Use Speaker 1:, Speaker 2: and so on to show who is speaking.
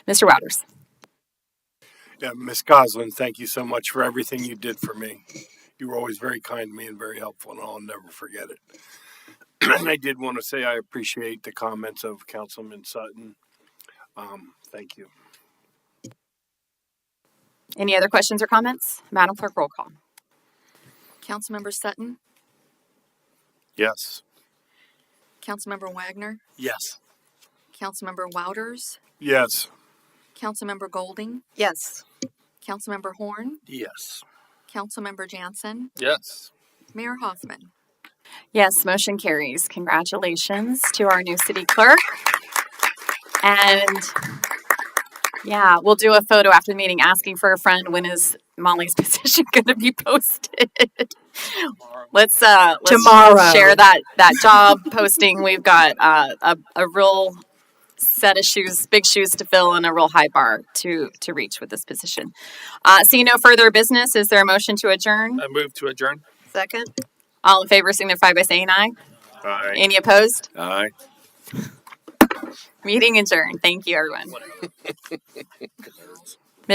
Speaker 1: Mr. Wouters.
Speaker 2: Yeah, Ms. Goslin, thank you so much for everything you did for me. You were always very kind to me and very helpful, and I'll never forget it. and I did want to say I appreciate the comments of Councilman Sutton. Um, thank you.
Speaker 1: Any other questions or comments? Madam Clerk, roll call.
Speaker 3: Councilmember Sutton,
Speaker 2: Yes.
Speaker 3: Councilmember Wagner,
Speaker 2: Yes.
Speaker 3: Councilmember Wouters,
Speaker 2: Yes.
Speaker 3: Councilmember Golding,
Speaker 1: Yes.
Speaker 3: Councilmember Horn,
Speaker 2: Yes.
Speaker 3: Councilmember Jansen,
Speaker 2: Yes.
Speaker 3: Mayor Hoffman.
Speaker 1: Yes, motion carries. Congratulations to our new city clerk. And yeah, we'll do a photo after the meeting asking for a friend when is Molly's position going to be posted? Let's uh let's
Speaker 4: Tomorrow.
Speaker 1: share that that job posting. We've got uh, a a real set of shoes, big shoes to fill, and a real high bar to to reach with this position. Uh, seeing no further business, is there a motion to adjourn?
Speaker 5: I move to adjourn.
Speaker 4: Second.
Speaker 1: All in favor, signify by saying aye.
Speaker 2: Aye.
Speaker 1: Any opposed?
Speaker 2: Aye.
Speaker 1: Meeting adjourned. Thank you, everyone.